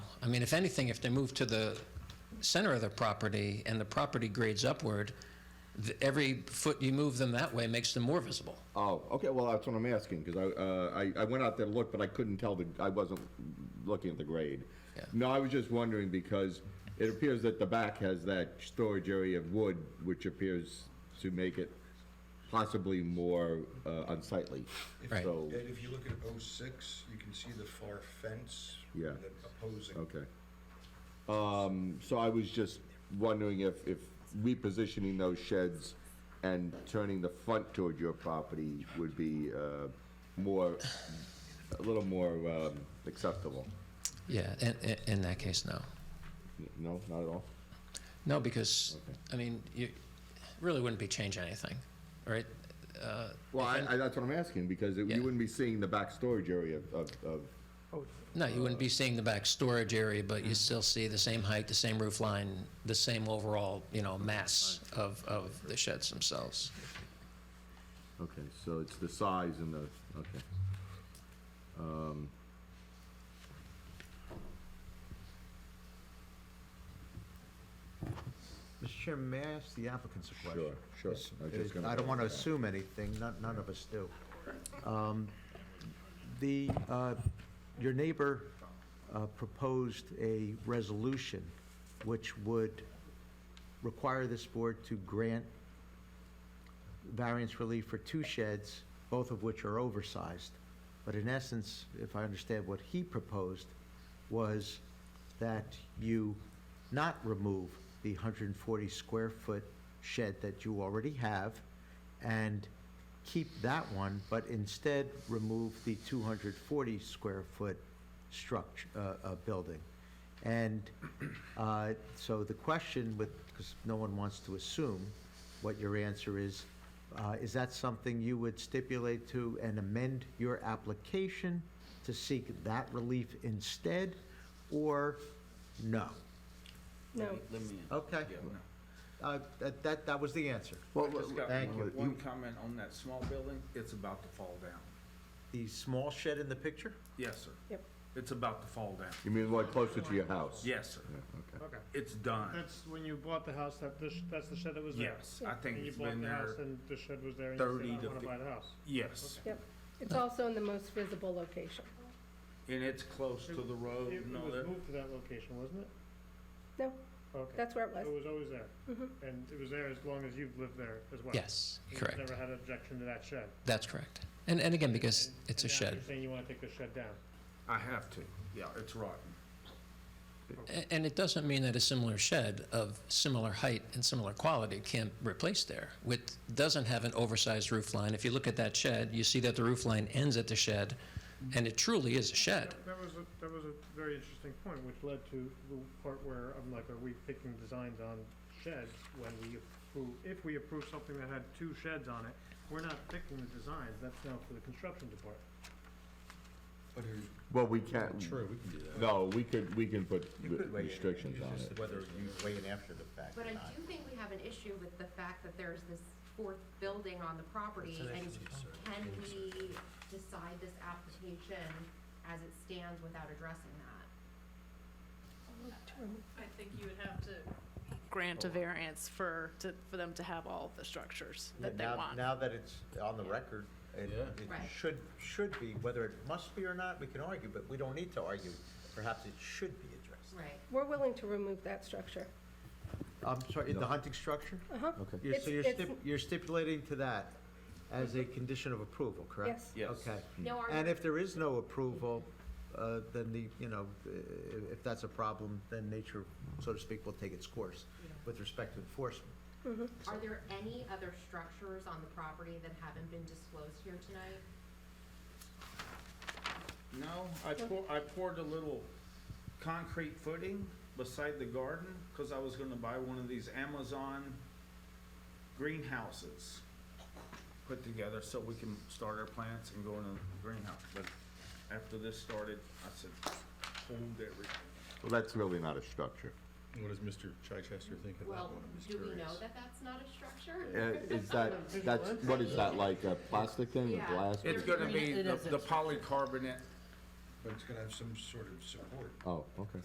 I mean, if anything, if they move to the center of the property and the property grades upward, th- every foot you move them that way makes them more visible. Oh, okay, well, that's what I'm asking, because I, uh, I, I went out there to look, but I couldn't tell the, I wasn't looking at the grade. Yeah. No, I was just wondering, because it appears that the back has that storage area of wood, which appears to make it possibly more uh, unsightly. Right. So, And if you look at 06, you can see the far fence. Yeah. Oh. that Opposing. okay. Um, so I was just wondering if, if repositioning those sheds and turning the front toward your property would be, uh, more, a little more, um, acceptable. Yeah, in, in, in that case, no. No, not at all? No, because, I mean, you really wouldn't be changing anything, right? Uh, Well, I, I, that's what I'm asking, because it- Yeah. you wouldn't be seeing the back storage area of, of, of- No, you wouldn't be seeing the back storage area, but you still see the same height, the same roof line, the same overall, you know, mass of, of the sheds themselves. okay, so it's the size and the, okay. Um, Mr. Chairman, may I ask the applicants a question? Sure, sure. This- I was just gonna I don't go want to with that. assume anything, none, none of us do. Um, The, uh, your neighbor uh, proposed a resolution which would require this board to grant variance relief for two sheds, both of which are oversized. But in essence, if I understand what he proposed, was that you not remove the 140 square foot shed that you already have and keep that one, but instead remove the 240 square foot structure, uh, uh, building. And, uh, so the question with, because no one wants to assume what your answer is, uh, is that something you would stipulate to and amend your application to seek that relief instead, or no? No, Okay. Uh, that, that, that was the answer. Well, I just got Thank one- you. one comment on that small building, it's about to fall down. The small shed in the picture? Yes, sir. Yep. It's about to fall down. You mean like closer to your house? Yes, sir. Yeah, okay. Okay, It's done. that's when you bought the house, that, this- that's the shed that was there? Yes, I think And you it's bought been the there, house and the shed was there and you 30 said, I to wanna fif- buy the house. yes. yep. It's also in the most visible location. And it's close to the road It it and all was Oh, that. moved to that location, wasn't it? No, Okay, that's where it it was. Mm-hmm. was always there. And it was there as long as you've lived there as well? Yes, And you've correct. Never had an objection to that shed? That's correct. And, and again, because And- it's a and now shed. You're saying you wanna take the shed down? I have to. Yeah, it's rotten. A- And it doesn't mean that a similar shed of similar height and similar quality can't replace there with, doesn't have an oversized roof line. If you look at that shed, you see that the roof line ends at the shed, and it truly is a shed. That was, a- that was a very interesting point, which led to the part where I'm like, are we picking designs on sheds when we approve, if we approve something that had two sheds on it, we're not picking the designs, that's now for the construction department. Well, we can't. True, we can do that. No, we could, we can put re- restrictions on it. Whether you weigh in after the fact But I do think we have an issue with the fact that there's this fourth building on the property, and can we decide this application as it stands without addressing that? I think you would have to grant a variance for, to, for them to have all the structures that they Now- want. Now that it's on the record, it, it Right. should, should be, whether it must be or not, we can argue, but we don't need to argue. Perhaps it should be addressed. Right. We're willing to remove that structure. I'm sorry, the hunting structure? Uh-huh. You're- So It's- you're it's- stip, you're stipulating to that as a condition of approval, correct? Yes. Yes. Okay. Hmm. No And argument, if there is no approval, uh, then the, you know, i- if that's a problem, then nature, so to speak, will take its course with respect to enforcement. are there any other structures on the property that haven't been disclosed here tonight? No, I poured, I poured a little concrete footing beside the garden because I was gonna buy one of these Amazon greenhouses put together so we can start our plants and go in a greenhouse. But after this started, I said, hold everything. Well, that's really not a structure. What does Mr. Chichester think of that Well, one? I'm just do we curious. know that that's not a Uh, structure? Is that, that's, what is that, like a plastic thing, a Yeah. glass? It's gonna be the polycarbonate But it's gonna have some sort of support. Oh, okay.